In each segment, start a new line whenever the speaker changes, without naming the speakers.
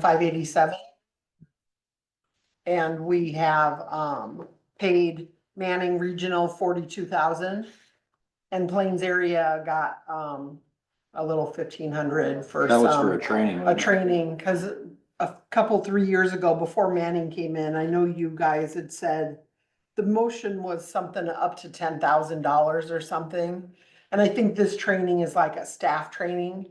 five eighty-seven. And we have, um, paid Manning Regional forty-two thousand. And Plains area got, um, a little fifteen hundred for
That was for a
some,
training.
um, a
wasn't it?
training, cause a couple, three years ago, before Manning came in, I know you guys had said the motion was something up to ten thousand dollars or something. And I think this training is like a staff training.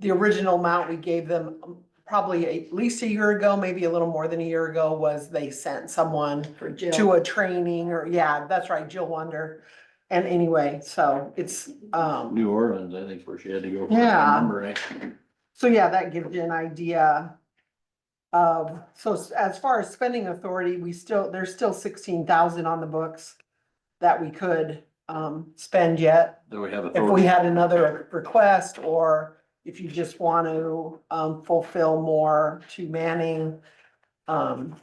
The original amount we gave them um, probably at least a year ago, maybe a little more than a year ago, was they sent someone
For Jill.
to a training or, yeah, that's right, Jill Wonder. And anyway, so it's, um,
New Orleans, I think, where she had to go. for it, if I
Yeah.
remember right.
so yeah, that gives you an idea of, so s- as far as spending authority, we still, there's still sixteen thousand on the books that we could, um, spend yet.
That we have
If we
authority.
had another request, or if you just want to, um, fulfill more to Manning, um,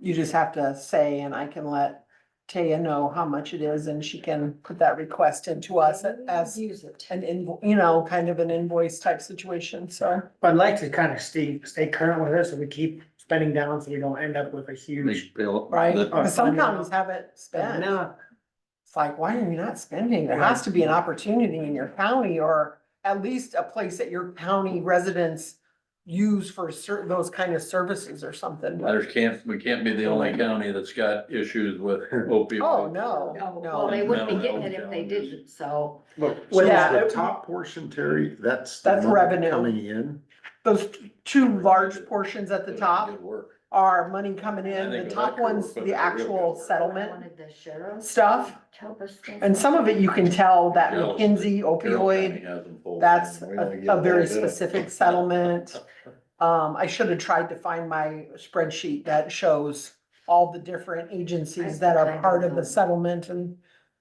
you just have to say, and I can let Taya know how much it is, and she can put that request into us as
Use it.
an invo, you know, kind of an invoice type situation, so.
I'd like to kind of stay, stay current with this, and we keep spending down, so we don't end up with a huge.
Big bill.
Right,
That-
But some counties haven't spent.
No,
It's like, why are you not spending? There has to be an opportunity in your county or at least a place that your county residents use for certain, those kind of services or something.
There's can't, we can't be the only county that's got issues with opioid.
Oh, no,
No, well,
no.
they wouldn't be getting it if they didn't, so.
Look,
Well,
so is
yeah.
the top portion, Terry, that's. the
That's
money
revenue.
Coming in.
Those two large portions at the top
Good work.
are money coming in.
I think
The
that
top
could
one's
work, but
the
it's a real
actual
good-
I
settlement
Wanted the sheriff to
stuff.
help us.
And some of it you can tell that
Dallas-
McKinsey
Carroll County
opioid,
has them full.
that's
We only
a
get
a very
little bit.
specific settlement. Um, I should have tried to find my spreadsheet that shows all the different agencies that are part of the settlement and,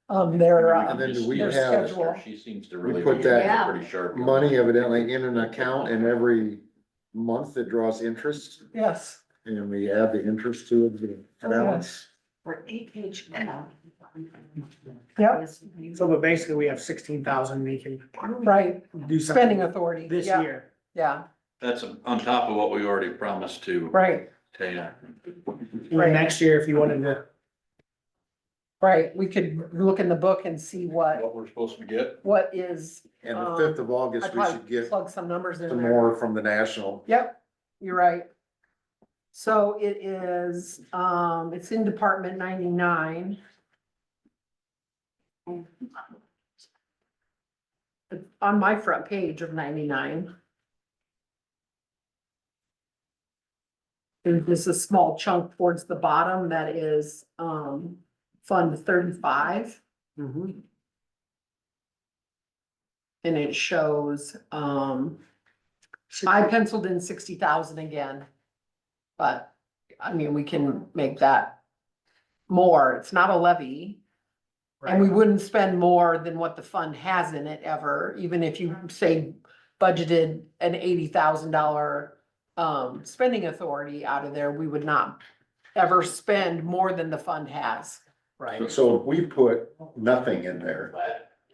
um, their,
I mean,
uh,
And then
just-
we
their
have-
schedule, She seems to
We
really.
put
be
that
Pretty sharp.
Money evidently in an account and every month it draws interest
yes.
and we add the interest to it.
Oh,
the balance.
For AHL.
Yep.
so but basically, we have sixteen thousand we can
Right,
do something
spending authority.
this
Yeah,
year.
Yeah,
That's on top of what we already promised to
right,
Tana.
And then next year, if you wanted to,
right. We could look in the book and see what,
What we're supposed to get.
what is,
And the fifth of
Um, I
August, we should
probably
get
plug some numbers in
some
there.
more from the national.
Yep, you're right. So it is, um, it's in Department ninety-nine. It's On my front page of ninety-nine. There's just a small chunk towards the bottom that is, um, Fund thirty-five.
Mm-hmm.
And it shows, um, I penciled in sixty thousand again. But, I mean, we can make that more. It's not a levy. And we wouldn't spend more than what the fund has in it ever, even if you say budgeted an eighty thousand dollar um, spending authority out of there, we would not ever spend more than the fund has.
Right.
So if we put nothing in there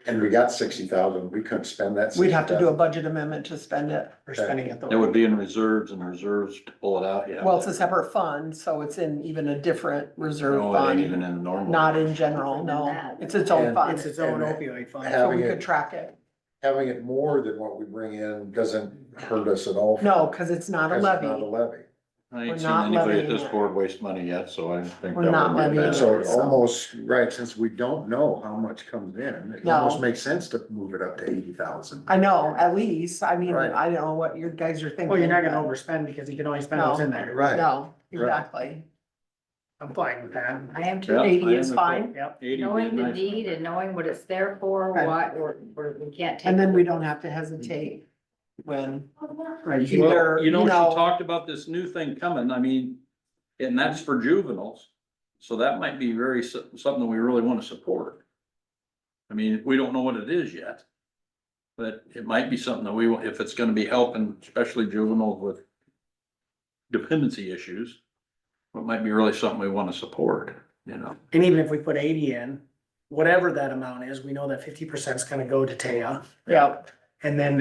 and we got sixty thousand, we couldn't spend that.
We'd have to do a budget amendment to spend it.
For spending it.
That would be in reserves and reserves to pull it out, yeah.
Well, it's a separate fund, so it's in even a different reserve
No, it ain't
fund,
even in normal.
not in general, no. It's its own
And
fund.
It's its own opioid fund.
So we
Having
could
it,
track it.
having it more than what we bring in doesn't hurt us at all.
No, because it's not a
Because it's Not a
levy.
levy.
I ain't
We're
seen
not
anybody at
levying
this
it.
board waste money yet, so I think.
We're
that
not
would be a
levying
bad-
it.
So it almost, right, since we don't know how much comes in, it
No.
almost makes sense to move it up to eighty thousand.
I know, at least, I mean,
Right.
I don't know what your guys are thinking.
Well, Oh, you're not gonna
but-
overspend because you can only spend what's in there.
Right,
No, exactly.
I'm fine with that.
I am
Yeah,
too,
Eighty
I
is
am
fine,
Yep.
Eighty would
knowing
be
the
nice.
deed and knowing what it's there for,
Right.
what, or, or we can't take.
and then we don't have to hesitate when,
Right.
Either,
Well, you know,
you
she
know-
talked about this new thing coming, I mean, and that's for juveniles. So that might be very, so- something we really wanna support. I mean, we don't know what it is yet. But it might be something that we, want if it's gonna be helping especially juveniles with dependency issues. It might be really something we wanna support, you know?
And even if we put eighty in, whatever that amount is, we know that fifty percent is gonna go to Taya.
yeah.
And then